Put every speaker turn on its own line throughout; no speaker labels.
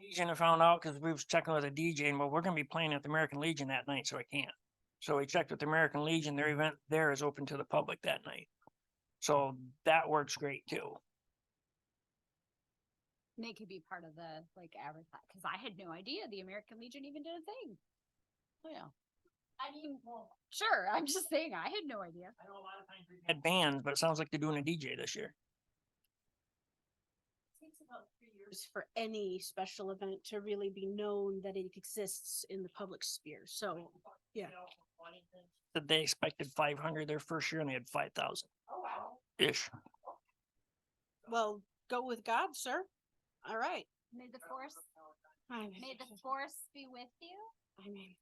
Legion, I found out because we was checking with a DJ and well, we're gonna be playing at the American Legion that night, so I can't. So we checked with the American Legion, their event there is open to the public that night. So that works great too.
And They could be part of the like advertise because I had no idea the American Legion even did a thing.
Oh, yeah.
I mean, well, sure. I'm just saying I had no idea.
I know a lot of times we've Had bands, but it sounds like they're doing a DJ this year.
Takes about three years for any special event to really be known that it exists in the public sphere. So, Yeah.
That they expected five hundred their first year and they had five thousand. Ish.
well, go with God, sir. All right.
May the force,
I
may
mean,
the force be with you.
I mean,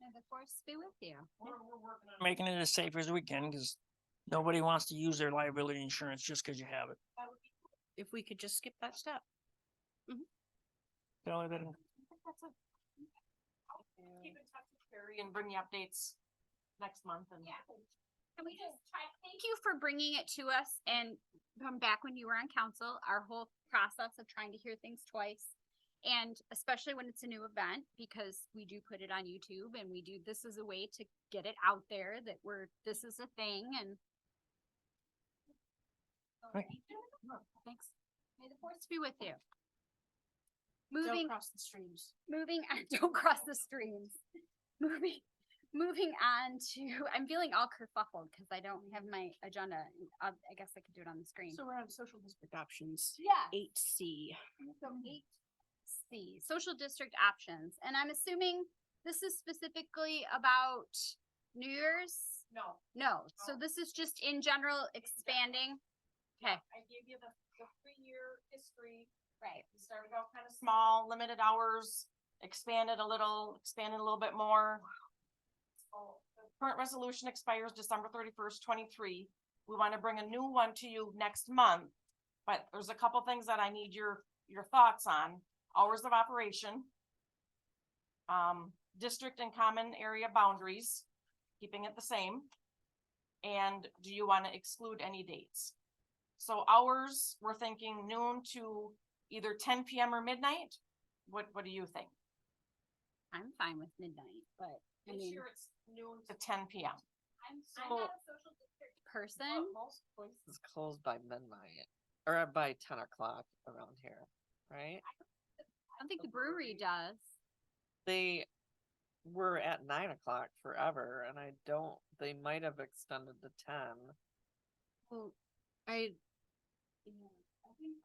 May the force be with you.
We're, we're working on making it as safe as we can because nobody wants to use their liability insurance just because you have it.
if we could just skip that step.
Tell her that.
Keep in touch with Carrie and bring the updates next month and.
Yeah. Can we just try, thank you for bringing it to us and from back when you were on council, our whole process of trying to hear things twice. And especially when it's a new event, because we do put it on YouTube and we do, this is a way to get it out there that we're, this is a thing and. So
Right.
thank you. Thanks. May the force be with you.
Don't
Moving
cross the streams.
moving on, don't cross the streams. Moving, moving on to, I'm feeling all kerfuffled because I don't have my agenda. I, I guess I could do it on the screen.
So we're on social district options.
Yeah.
Eight C.
So eight C, social district options. And I'm assuming this is specifically about New Year's?
No,
No, so
No.
this is just in general expanding? Okay,
I gave you the, the three-year history.
right.
We started out kind of small, limited hours, expanded a little, expanded a little bit more. So, the Current resolution expires December thirty-first, twenty-three. We want to bring a new one to you next month. But there's a couple things that I need your, your thoughts on. Hours of operation. Um, district and common area boundaries, keeping it the same. And do you want to exclude any dates? So hours, we're thinking noon to either ten PM or midnight? What, what do you think?
I'm fine with midnight, but I mean,
it's noon. To ten PM.
I'm, I'm
So-
not a social district Oh, person.
Most places.
It's closed by midnight or uh, by ten o'clock around here, right?
I don't think the brewery does.
They were at nine o'clock forever and I don't, they might have extended to ten.
Well, I,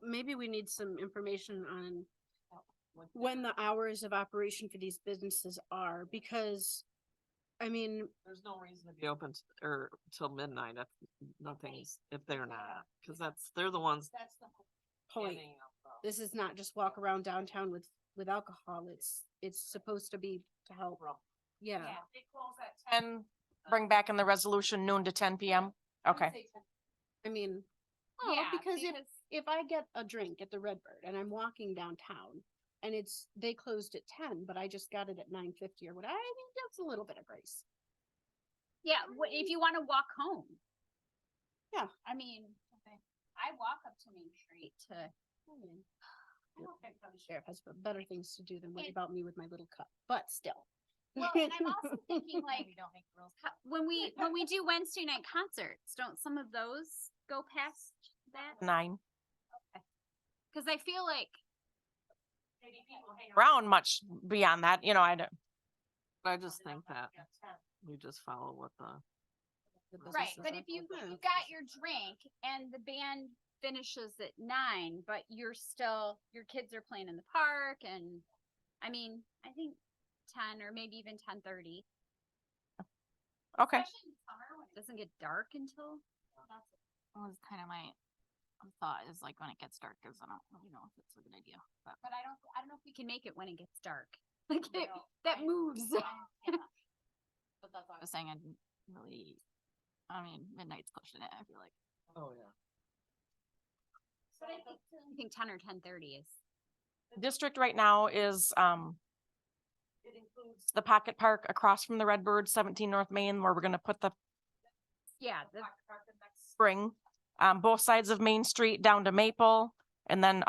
maybe we need some information on when the hours of operation for these businesses are, because, I mean,
There's no reason to be open t- or till midnight if nothing's, if they're not, cause that's, they're the ones.
that's the point.
standing up, though.
This is not just walk around downtown with, with alcohol. It's, it's supposed to be to help. Yeah.
Yeah, they close at ten. Bring back in the resolution noon to ten PM? Okay.
I mean, oh, because if, if I get a drink at the Redbird and I'm walking downtown and it's, they closed at ten, but I just got it at nine fifty or what, I think that's a little bit of grace.
Yeah, wh- if you wanna walk home.
Yeah.
I mean, I walk up to Main Street to.
I don't think the Sheriff has b- better things to do than worry about me with my little cup, but still.
Well, and I'm also thinking like, ho- when we, when we do Wednesday night concerts, don't some of those go past that?
Nine.
Cause I feel like,
Around much beyond that, you know, I don't.
I just think that we just follow what the.
The
Right,
right,
businesses
but
are
if you,
Hmm.
closed.
you got your drink and the band finishes at nine, but you're still, your kids are playing in the park and, I mean, I think ten or maybe even ten thirty.
Okay.
Especially in summer when it doesn't get dark until.
was kind of my thought is like when it gets dark is I don't you know if it's a good idea. But
But I don't, I don't know if we can make it when it gets dark. Like
I
it,
don't-
that
I-
moves.
but that's what I was saying I didn't really I mean midnight's pushing it, I feel like.
Oh, yeah.
But I think- I think ten or ten thirty is.
District right now is, um, it includes the Pocket Park across from the Redbird, seventeen North Main, where we're gonna put the
Yeah, the
Spring, um, both sides of Main Street down to Maple, and then